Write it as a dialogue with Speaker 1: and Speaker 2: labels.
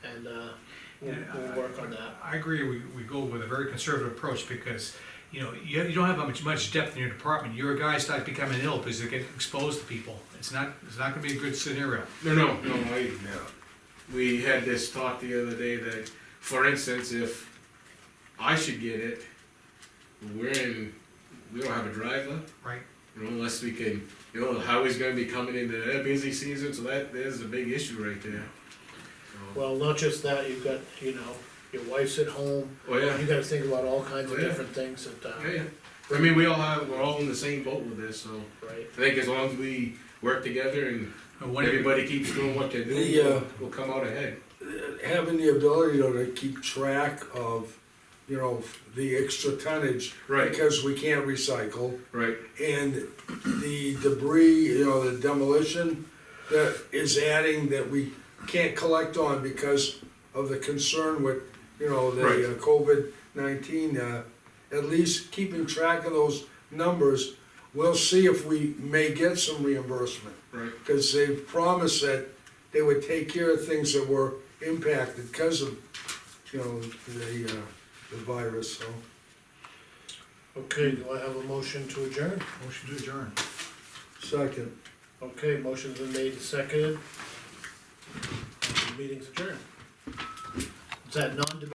Speaker 1: and, uh, we'll,
Speaker 2: Yeah,
Speaker 1: we'll
Speaker 2: I-
Speaker 1: work on that.
Speaker 2: I agree, we, we go with a very conservative approach because, you know, you, you don't have much, much depth in your department. Your guys start becoming ill because they get exposed to people. It's not, it's not gonna be a good scenario.
Speaker 3: No, no, no, I, no. We had this talk the other day that, for instance, if I should get it, we're in, we don't have a driver,
Speaker 2: Right.
Speaker 3: you know, unless we can, you know, the highway's gonna be coming into their busy season, so that, there's a big issue right there. So-
Speaker 1: Well, not just that, you've got, you know, your wife's at home,
Speaker 3: Oh, yeah,
Speaker 1: you gotta think about all kinds of
Speaker 3: Yeah.
Speaker 1: different things that, uh,
Speaker 3: yeah, yeah. I mean, we all have, we're all in the same boat with this, so
Speaker 1: right?
Speaker 3: I think as long as we work together and
Speaker 2: And what-
Speaker 3: everybody keeps doing what they do,
Speaker 4: Yeah.
Speaker 3: we'll, we'll come out ahead.
Speaker 4: having the ability though to keep track of, you know, the extra tonnage.
Speaker 3: Right,
Speaker 4: Because we can't recycle,
Speaker 3: right,
Speaker 4: and the debris, you know, the demolition that is adding that we can't collect on because of the concern with, you know,
Speaker 3: Right.
Speaker 4: the uh, COVID nineteen, uh, at least keeping track of those numbers, we'll see if we may get some reimbursement
Speaker 3: right,
Speaker 4: because they promised that they would take care of things that were impacted because of, you know, the, uh, the virus, so.
Speaker 1: Okay, do I have a motion to adjourn?
Speaker 2: Motion to adjourn.
Speaker 4: Second.
Speaker 1: Okay, motion's been made and seconded. Meeting's adjourned. Is that non-debatable?